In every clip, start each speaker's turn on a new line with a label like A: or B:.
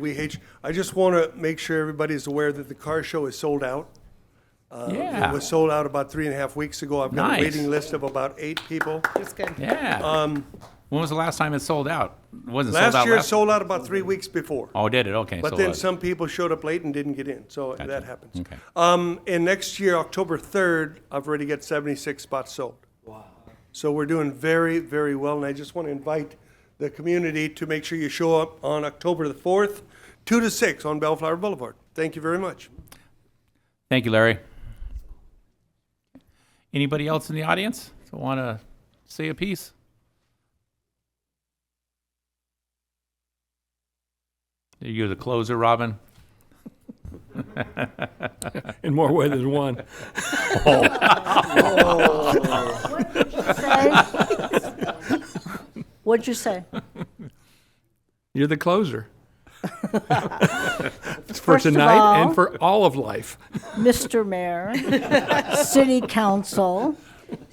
A: we hate you. I just want to make sure everybody is aware that the car show is sold out. It
B: Yeah,
A: was sold out about three and a half weeks ago. I've got a
B: Nice.
A: waiting list of about eight people.
C: That's good.
B: yeah. When was the last time it sold out? It Wasn't sold
A: um, Last
B: out
A: year, it
B: last?
A: sold out about three weeks before.
B: Oh, did it? Okay.
A: But
B: so
A: then
B: was-
A: some people showed up late and didn't get in, so
B: Gotcha.
A: that happens.
B: Okay.
A: Um, and next year, October third, I've already got seventy-six spots sold. Wow. So we're doing very, very well, and I just want to invite the community to make sure you show up on October the fourth, two to six on Bellflower Boulevard. Thank you very much.
B: Thank you, Larry. Anybody else in the audience that want to say a piece? You're the closer, Robin.
D: in more ways than one.
E: What'd you say?
D: You're the closer. for
E: First of
D: tonight
E: all-
D: and for all of life.
E: Mr. Mayor, City Council,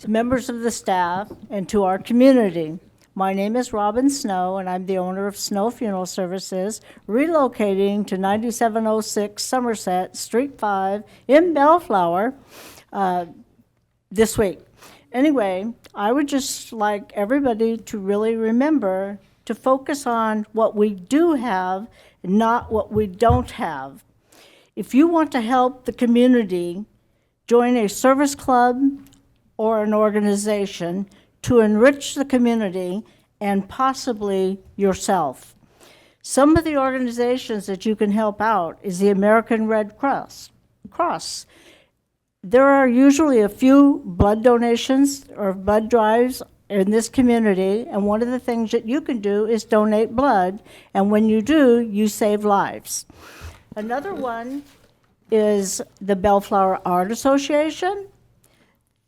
E: members of the staff, and to our community. My name is Robin Snow, and I'm the owner of Snow Funeral Services, relocating to 9706 Somerset, Street 5, in Bellflower, uh, this week. Anyway, I would just like everybody to really remember to focus on what we do have, not what we don't have. If you want to help the community, join a service club or an organization to enrich the community and possibly yourself. Some of the organizations that you can help out is the American Red Cross. Cross. There are usually a few blood donations or blood drives in this community, and one of the things that you can do is donate blood, and when you do, you save lives. Another one is the Bellflower Art Association,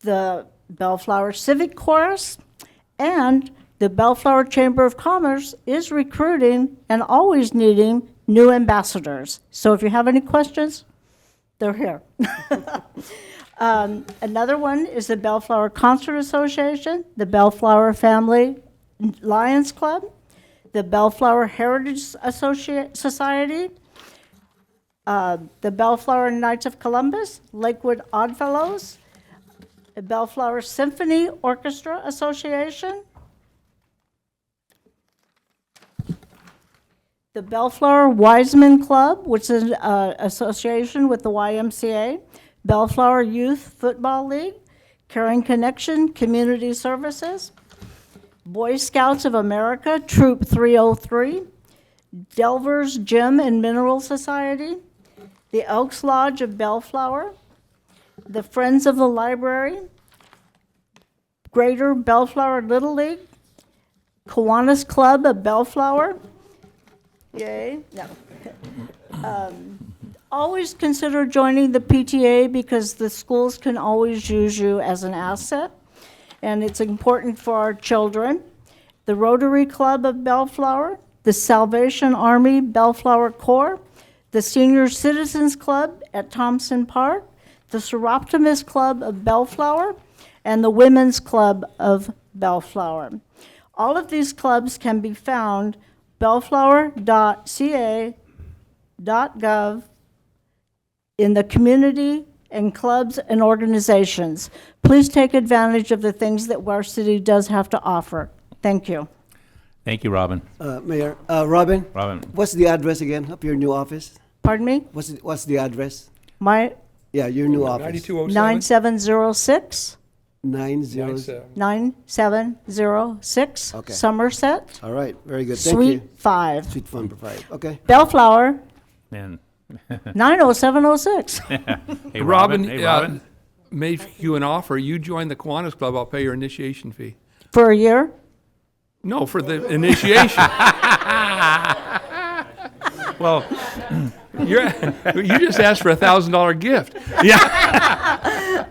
E: the Bellflower Civic Chorus, and the Bellflower Chamber of Commerce is recruiting and always needing new ambassadors. So if you have any questions, they're here. Um, Another one is the Bellflower Concert Association, the Bellflower Family Lions Club, the Bellflower Heritage Associate Society, uh, the Bellflower Knights of Columbus, Lakewood Oddfellows, the Bellflower Symphony Orchestra Association, the Bellflower Wiseman Club, which is an association with the YMCA, Bellflower Youth Football League, Caring Connection Community Services, Boy Scouts of America Troop 303, Delvers Gem and Mineral Society, the Elks Lodge of Bellflower, the Friends of the Library, Greater Bellflower Little League, Kiwanis Club of Bellflower, Yay, no. Um, Always consider joining the PTA because the schools can always use you as an asset, and it's important for our children. The Rotary Club of Bellflower, the Salvation Army Bellflower Corps, the Senior Citizens Club at Thompson Park, the Seroptimus Club of Bellflower, and the Women's Club of Bellflower. All of these clubs can be found bellflower.ca.gov in the community and clubs and organizations. Please take advantage of the things that our city does have to offer. Thank you.
B: Thank you, Robin.
F: Uh, Mayor, uh, Robin?
B: Robin.
F: What's the address again of your new office?
E: Pardon me?
F: What's, it, what's the address?
E: My
F: Yeah, your new office.
D: 9207?
E: 9706, uh,
F: 907.
E: 9706
F: Okay.
E: Somerset,
F: All right, very good. Thank
E: Suite
F: you.
E: 5,
F: Sweet fun provider. Okay.
E: Bellflower,
B: And,
E: 90706.
B: hey, Robin,
D: Robin,
B: hey,
D: uh,
B: Robin.
D: made you an offer. You join the Kiwanis Club, I'll pay your initiation fee.
E: For a year?
D: No, for the initiation.
B: Well,
D: You're, you just asked for a $1,000 gift. Yeah.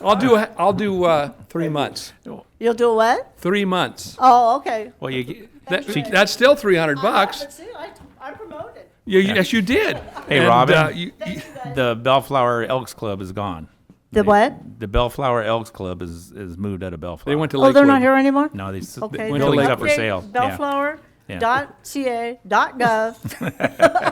D: I'll do, a- I'll do uh, three months.
E: You'll do what?
D: Three months.
E: Oh, okay.
B: well, you, g-
D: That- That's still 300 bucks.
E: But see, I, I promoted.
D: You- Yes, you did.
B: Hey,
D: And,
B: Robin.
D: uh, you- you-
B: the Bellflower Elks Club is gone.
E: The
B: They-
E: what?
B: The Bellflower Elks Club is, is moved out of Bellflower.
D: They went to
E: Oh,
D: Lakewood.
E: they're not here anymore?
B: No, they, s- the
E: Okay.
B: building's
D: to
B: up for
E: update
B: sale. Yeah.
E: Bellflower
B: Yeah.
E: dot ca dot gov